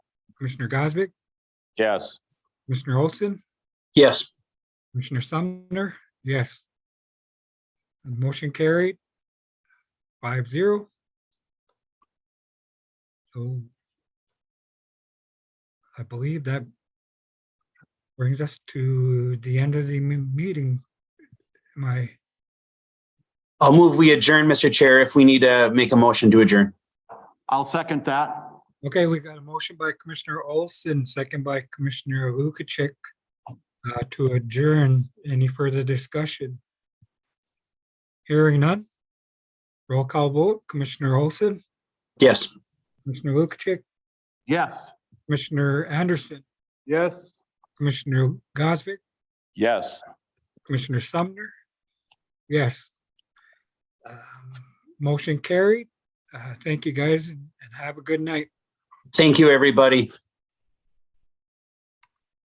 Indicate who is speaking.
Speaker 1: Commissioner Gosbick,
Speaker 2: Yes.
Speaker 1: Commissioner Olson,
Speaker 3: Yes.
Speaker 1: Commissioner Sumner, yes. Motion carried. Five zero. So I believe that brings us to the end of the m- meeting. My,
Speaker 3: I'll move we adjourn, Mr. Chair, if we need to make a motion to adjourn.
Speaker 2: I'll second that.
Speaker 1: okay, we got a motion by Commissioner Olson, second by Commissioner Lukic uh, to adjourn. Any further discussion? Hearing none. Roll call vote, Commissioner Olson,
Speaker 3: Yes.
Speaker 1: Commissioner Lukic,
Speaker 2: Yes.
Speaker 1: Commissioner Anderson,
Speaker 2: Yes.
Speaker 1: Commissioner Gosvick,
Speaker 2: Yes.
Speaker 1: Commissioner Sumner. Yes. Um, Motion carried. Uh, Thank you, guys, and and have a good night.
Speaker 3: Thank you, everybody.